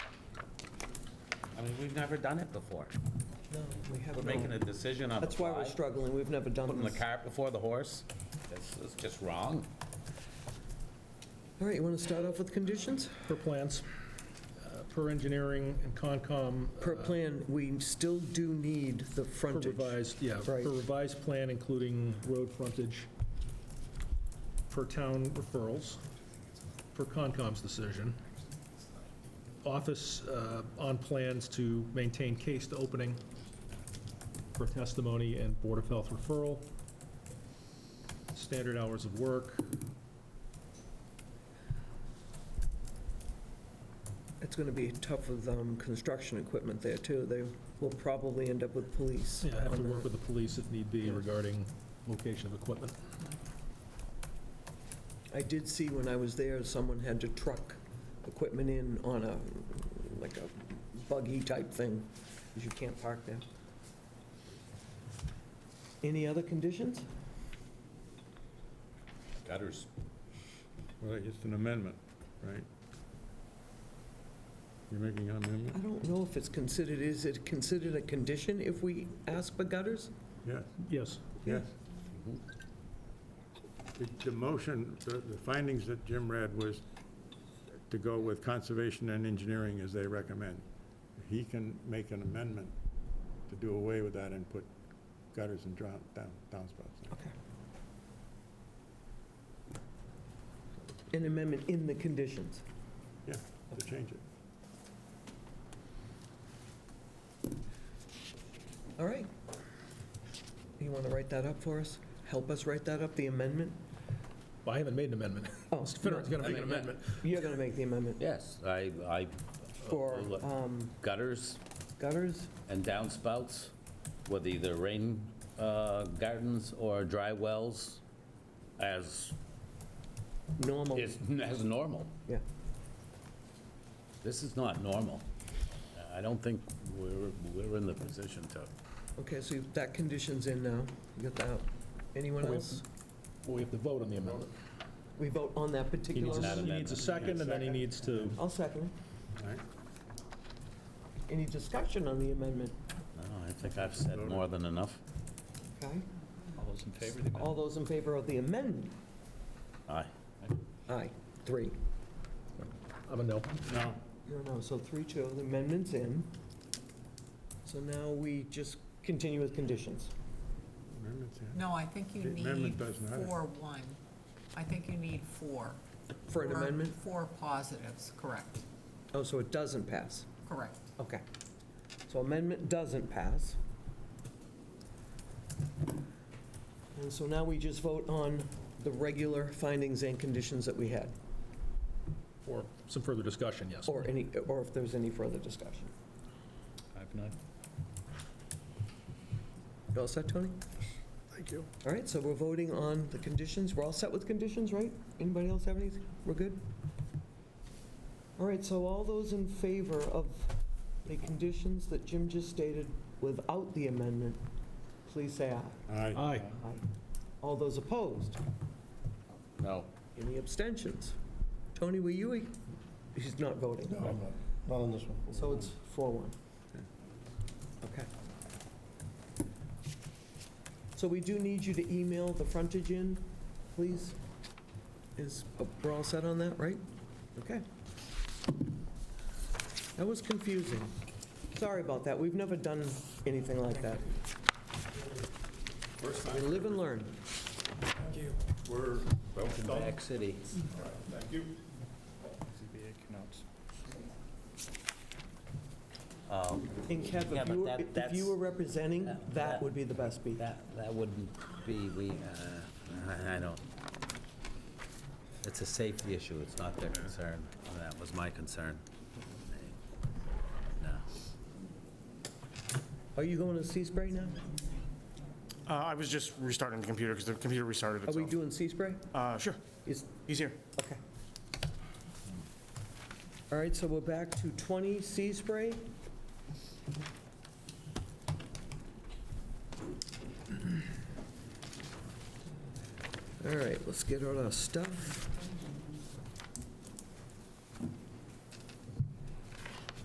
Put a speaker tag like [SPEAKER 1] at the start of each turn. [SPEAKER 1] I mean, we've never done it before.
[SPEAKER 2] No, we have
[SPEAKER 1] We're making a
[SPEAKER 2] no.
[SPEAKER 1] decision on the
[SPEAKER 2] That's why we're
[SPEAKER 1] fly,
[SPEAKER 2] struggling, we've never done
[SPEAKER 1] putting the
[SPEAKER 2] this. All
[SPEAKER 1] cart before the horse. It's it's just wrong.
[SPEAKER 2] right, you want to start off with conditions?
[SPEAKER 3] per plans, uh, per engineering and Concom. uh,
[SPEAKER 2] Per plan, we still do need the
[SPEAKER 3] Per
[SPEAKER 2] frontage.
[SPEAKER 3] revised, yeah, per
[SPEAKER 2] Right.
[SPEAKER 3] revised plan, including road frontage, per town referrals, per Concom's decision, office uh, on plans to maintain case to opening, per testimony and Board of Health referral, standard hours of work,
[SPEAKER 2] It's going to be tough with um, construction equipment there, too. They will probably end up with police.
[SPEAKER 3] Yeah, I have to
[SPEAKER 2] on
[SPEAKER 3] work
[SPEAKER 2] that.
[SPEAKER 3] with the police if need be
[SPEAKER 2] Yeah.
[SPEAKER 3] regarding location of equipment.
[SPEAKER 2] I did see when I was there, someone had to truck equipment in on a, like a buggy type thing, because you can't park there. Any other conditions?
[SPEAKER 1] Gutters.
[SPEAKER 4] Right, it's an amendment, right? You're making
[SPEAKER 2] I
[SPEAKER 4] an amendment?
[SPEAKER 2] don't know if it's considered, is it considered a condition if we ask for gutters?
[SPEAKER 4] Yes,
[SPEAKER 3] Yes.
[SPEAKER 4] yes. The- The motion, the the findings that Jim read was to go with conservation and engineering as they recommend. He can make an amendment to do away with that and put gutters and drown- down- downspouts. in.
[SPEAKER 2] An amendment in the conditions.
[SPEAKER 4] Yeah, to change it.
[SPEAKER 2] All right. You want to write that up for us? Help us write that up, the amendment?
[SPEAKER 3] Well, I haven't made an amendment.
[SPEAKER 2] Oh,
[SPEAKER 3] Mr. Finnergan's going to make an amendment.
[SPEAKER 2] You're going to make the amendment
[SPEAKER 5] Yes, I, I,
[SPEAKER 2] for um,
[SPEAKER 5] gutters
[SPEAKER 2] gutters?
[SPEAKER 5] and downspouts, with either rain uh, gardens or dry wells, as,
[SPEAKER 2] Normal,
[SPEAKER 5] is, as normal.
[SPEAKER 2] yeah.
[SPEAKER 5] This is not normal. I don't think we're, we're in the position to.
[SPEAKER 2] Okay, so that condition's in now. You got that? Anyone
[SPEAKER 3] We-
[SPEAKER 2] else?
[SPEAKER 3] Well, we have to vote on the amendment.
[SPEAKER 2] We vote on that
[SPEAKER 3] He
[SPEAKER 2] particular
[SPEAKER 3] needs a-
[SPEAKER 5] Not
[SPEAKER 2] amendment?
[SPEAKER 3] he needs a second, and then he needs to,
[SPEAKER 2] I'll second.
[SPEAKER 4] All right?
[SPEAKER 2] Any discussion on the amendment?
[SPEAKER 5] No, I think I've said more than enough.
[SPEAKER 2] Okay.
[SPEAKER 6] All those in favor of the amendment?
[SPEAKER 2] All those in favor of the amendment?
[SPEAKER 5] Aye.
[SPEAKER 2] Aye, three.
[SPEAKER 3] I'm a no.
[SPEAKER 4] No.
[SPEAKER 2] No, no, so three, two, the amendment's in. So now we just continue with conditions.
[SPEAKER 4] Amendments, yeah.
[SPEAKER 7] No, I think you
[SPEAKER 4] The amendment
[SPEAKER 7] need
[SPEAKER 4] doesn't have it.
[SPEAKER 7] four, one. I think you need four.
[SPEAKER 2] For an
[SPEAKER 7] Four-
[SPEAKER 2] amendment?
[SPEAKER 7] Four positives, correct,
[SPEAKER 2] Oh, so it doesn't pass.
[SPEAKER 7] correct.
[SPEAKER 2] Okay. So amendment doesn't pass. And so now we just vote on the regular findings and conditions that we had,
[SPEAKER 3] Or some further discussion, yes.
[SPEAKER 2] or any, or if there's any further discussion.
[SPEAKER 6] I've not.
[SPEAKER 2] You all set, Tony?
[SPEAKER 3] Thank you.
[SPEAKER 2] All right, so we're voting on the conditions. We're all set with conditions, right? Anybody else have anything? We're good? All right, so all those in favor of the conditions that Jim just stated without the amendment, please say aye.
[SPEAKER 4] Aye.
[SPEAKER 3] Aye.
[SPEAKER 2] Aye. All those opposed?
[SPEAKER 5] No.
[SPEAKER 2] Any abstentions? Tony, were you, he's not voting. No, I'm not, not on this one. So it's 4-1. Okay. So we do need you to email the frontage in, please. Is, oh, we're all set on that, right? Okay. That was confusing. Sorry about that, we've never done anything like that. We live and learn.
[SPEAKER 5] Welcome back, city.
[SPEAKER 6] ZBA cannot.
[SPEAKER 2] And Kev,
[SPEAKER 5] Yeah,
[SPEAKER 2] if
[SPEAKER 5] but
[SPEAKER 2] you, were-
[SPEAKER 5] that-
[SPEAKER 2] if
[SPEAKER 5] that's-
[SPEAKER 2] you were representing,
[SPEAKER 5] that-
[SPEAKER 2] that
[SPEAKER 5] that-
[SPEAKER 2] would be the best speech.
[SPEAKER 5] That, that wouldn't be, we, uh, I I don't. It's a safety issue, it's not their concern. That was my concern. No.
[SPEAKER 2] Are you going to Seaspray now?
[SPEAKER 8] Uh, I was just restarting the computer because the computer restarted
[SPEAKER 2] Are we
[SPEAKER 8] itself.
[SPEAKER 2] doing Seaspray?
[SPEAKER 8] Uh, Sure,
[SPEAKER 2] Is,
[SPEAKER 8] he's here.
[SPEAKER 2] okay. All right, so we're back to 20 Seaspray. All right, let's get all our stuff.